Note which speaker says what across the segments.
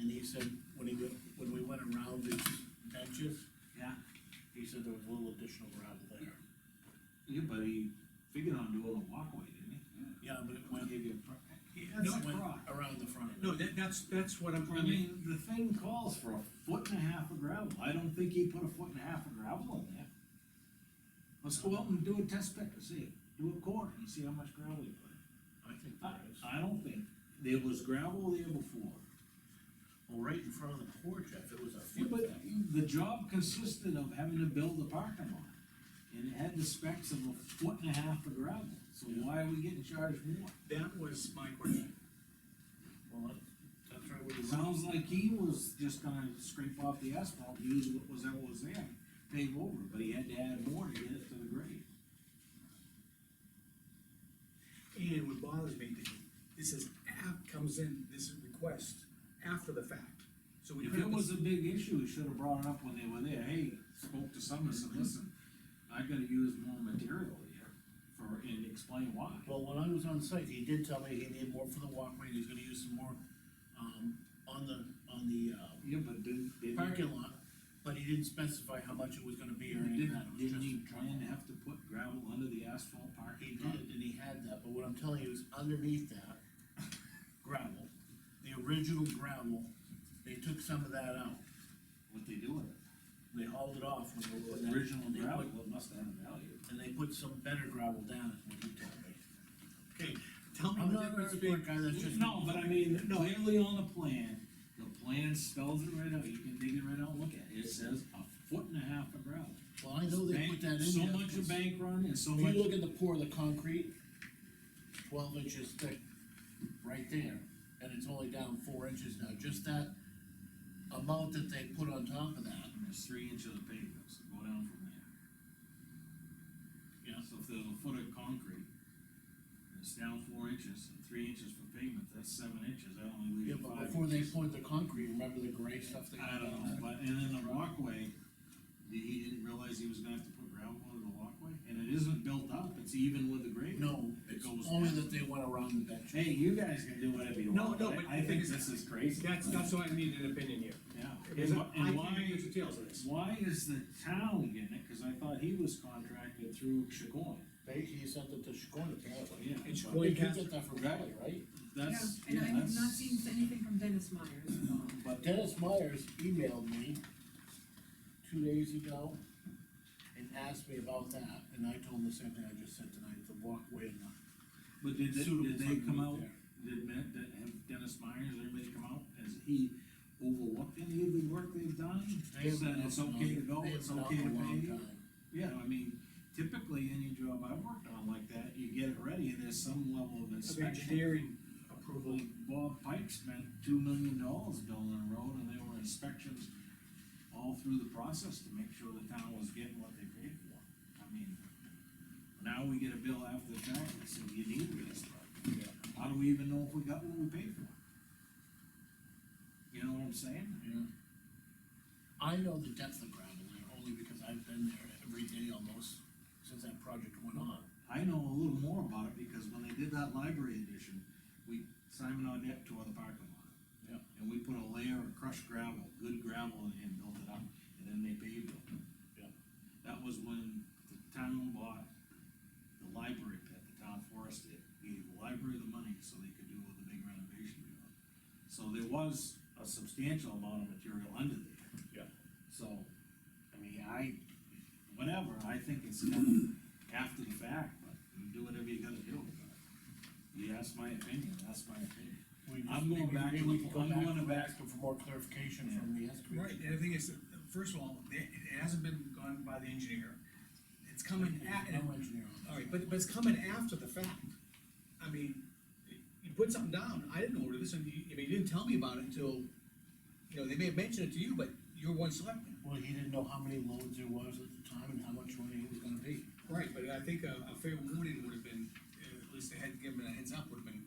Speaker 1: and he said, when he, went- when we went around these benches,
Speaker 2: Yeah,
Speaker 1: he said there was a little additional gravel there.
Speaker 2: yeah, but he figured on doing a walkway, didn't
Speaker 1: Yeah, but it
Speaker 2: he? When
Speaker 1: went,
Speaker 2: he
Speaker 1: it
Speaker 2: gave you a. pro-
Speaker 3: That's
Speaker 2: It
Speaker 1: went
Speaker 2: went-
Speaker 1: around the front of it.
Speaker 3: No, that, that's, that's what I'm,
Speaker 2: I
Speaker 3: I mean,
Speaker 2: mean, the thing calls for a foot and a half of gravel, I don't think he put a foot and a half of gravel in there. Let's go out and do a test pit to see, do a core and see how much gravel he put.
Speaker 1: I
Speaker 2: in.
Speaker 1: think
Speaker 2: I,
Speaker 1: there is.
Speaker 2: I don't think, there was gravel there before.
Speaker 1: Well, right in front of the porch, if it was a
Speaker 2: Yeah,
Speaker 1: foot
Speaker 2: but
Speaker 1: thing.
Speaker 2: the job consisted of having to build a parking lot, and it had the specs of a foot and a half of gravel, so why are we getting charged more?
Speaker 3: that was my question.
Speaker 1: Well, that- that's right where
Speaker 2: It
Speaker 1: you.
Speaker 2: sounds like he was just gonna scrape off the asphalt, use what was, ever was there, pave over, but he had to add more to get it to the grade.
Speaker 3: And what bothers me, Dave, this is, app comes in, this is request after the fact. So we
Speaker 2: If
Speaker 3: put
Speaker 2: it
Speaker 3: up this,
Speaker 2: was a big issue, he should have brought it up when they were there, hey, spoke to someone, said, listen, I gotta use more material here for, and explain why.
Speaker 1: Well, when I was on site, he did tell me he needed more for the walkway, and he's gonna use some more, um, on the, on the, uh,
Speaker 2: Yeah, but did, did.
Speaker 1: parking lot, but he didn't specify how much it was gonna be or any of that.
Speaker 2: Didn't,
Speaker 1: It was
Speaker 2: didn't he
Speaker 1: just-
Speaker 2: plan to have to put gravel under the asphalt
Speaker 1: He
Speaker 2: parking lot?
Speaker 1: did, and he had that, but what I'm telling you is underneath that gravel, the original gravel, they took some of that out.
Speaker 2: What they do with it?
Speaker 1: They hauled it off when they were
Speaker 2: The
Speaker 1: putting that,
Speaker 2: original gravel, it must have had a value.
Speaker 1: and they put some better gravel down, is what he told me.
Speaker 3: okay, tell me
Speaker 1: I'm
Speaker 3: the
Speaker 1: not an
Speaker 3: difference between.
Speaker 1: earthwork guy, that's just.
Speaker 2: No, but I mean, clearly on the plan, the plan spells it right out, you can dig it right out, and look at it, it says a foot and a half of gravel.
Speaker 1: Well, I know they put that in there.
Speaker 2: So much a
Speaker 1: 'cause
Speaker 2: bank run and so
Speaker 1: If you
Speaker 2: much,
Speaker 1: look at the pour of the concrete, twelve inches thick, right there, and it's only down four inches now, just that amount that they put on top of that.
Speaker 2: and there's three inches of pavement, so go down from there.
Speaker 1: Yeah.
Speaker 2: So if there's a foot of concrete, and it's down four inches, and three inches for pavement, that's seven inches, that only
Speaker 1: Yeah,
Speaker 2: leaves five.
Speaker 1: but before they
Speaker 2: inches.
Speaker 1: poured the concrete, remember the gray stuff they?
Speaker 2: I don't know, but, and then the walkway, he- he didn't realize he was gonna have to put gravel under the walkway, and it isn't built up, it's even with the grade.
Speaker 1: No,
Speaker 2: It
Speaker 1: it's
Speaker 2: goes
Speaker 1: only
Speaker 2: down.
Speaker 1: that they went around the bench.
Speaker 2: Hey, you guys can do whatever you
Speaker 3: No,
Speaker 2: want,
Speaker 3: no,
Speaker 2: but
Speaker 3: but
Speaker 2: I I
Speaker 3: the thing
Speaker 2: think this
Speaker 3: is-
Speaker 2: is crazy.
Speaker 3: That's, that's why I need an opinion here.
Speaker 2: Yeah,
Speaker 3: Because
Speaker 2: and
Speaker 3: I
Speaker 2: wh- and
Speaker 3: I think
Speaker 2: why,
Speaker 3: there's details of this.
Speaker 2: why is the town getting it, cause I thought he was contracted through Chicoine,
Speaker 1: They, he sent it to Chacon apparently.
Speaker 2: yeah.
Speaker 3: It's
Speaker 2: but
Speaker 3: Well,
Speaker 1: They
Speaker 3: you
Speaker 1: did
Speaker 3: have-
Speaker 1: get that from Valley, right?
Speaker 2: That's,
Speaker 4: And
Speaker 2: yeah,
Speaker 4: I have not
Speaker 2: that's,
Speaker 4: seen anything from Dennis Myers.
Speaker 1: But Dennis Myers emailed me two days ago and asked me about that, and I told him the same thing I just said tonight, the walkway and the.
Speaker 2: but did, they-
Speaker 1: suitable
Speaker 2: did they
Speaker 1: something
Speaker 2: come
Speaker 1: right
Speaker 2: out,
Speaker 1: there.
Speaker 2: did Matt, did have Dennis Myers, everybody come out, has he overlooked any of the work they've done?
Speaker 1: They have
Speaker 2: Said
Speaker 1: been
Speaker 2: it's
Speaker 1: up and
Speaker 2: okay to
Speaker 1: on-
Speaker 2: go,
Speaker 1: they have
Speaker 2: it's
Speaker 1: been up
Speaker 2: okay
Speaker 1: a
Speaker 2: to
Speaker 1: long
Speaker 2: pay,
Speaker 1: time.
Speaker 2: yeah, I mean, typically, any job I've worked on like that, you get it ready, and there's some level of
Speaker 3: Of
Speaker 2: inspection.
Speaker 3: engineering approval,
Speaker 2: Like Bob Pike spent two million dollars building a road, and there were inspections all through the process to make sure the town was getting what they paid for. I mean, now we get a bill after the fact that says you need this, but how do we even know if we got what we paid for? You know what I'm saying?
Speaker 1: Yeah. I know the depth of gravel there, only because I've been there every day almost since that project went on.
Speaker 2: I know a little more about it, because when they did that library edition, we, Simon Audette tore the parking lot.
Speaker 1: Yep.
Speaker 2: And we put a layer of crushed gravel, good gravel, and- and built it up, and then they paved it.
Speaker 1: Yep.
Speaker 2: That was when the town bought the library pit, the town forest did, gave the library the money so they could do all the big renovation. we want. So there was a substantial amount of material under there.
Speaker 1: Yep.
Speaker 2: So, I mean, I, whatever, I think it's kind of after the fact, but you do whatever you gotta do. but You ask my opinion, that's my opinion.
Speaker 1: We just-
Speaker 2: I'm going
Speaker 1: maybe-
Speaker 2: back
Speaker 1: maybe
Speaker 2: to
Speaker 1: we
Speaker 2: the-
Speaker 1: could go
Speaker 2: I'm
Speaker 1: back
Speaker 2: going
Speaker 1: to
Speaker 2: back-
Speaker 1: ask him for more clarification
Speaker 2: Yeah.
Speaker 1: from the excavator.
Speaker 3: right, and the thing is, first of all, it, it hasn't been gone by the engineer. It's coming at,
Speaker 1: There's no engineer on that.
Speaker 3: All right, but, but it's coming after the fact. I mean, you put something down, I didn't order this, and you, I mean, you didn't tell me about it until, you know, they may have mentioned it to you, but you're one selectman.
Speaker 1: Well, he didn't know how many loads there was at the time and how much money it was gonna be.
Speaker 3: Right, but I think a, a fair warning would have been, uh, at least they had given a heads up, would have been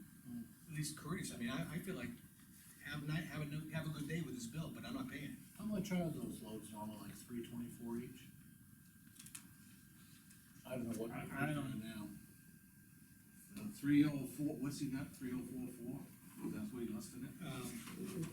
Speaker 3: at least courteous. I mean, I, I feel like, have night, have a, no- have a good day with this bill, but I'm not paying it.
Speaker 1: How much are those loads normally, like three twenty-four each? I don't know what.
Speaker 2: I- I don't-
Speaker 1: now.
Speaker 2: Three oh four, what's he got, three oh four four? That's what he listed it?
Speaker 3: Um,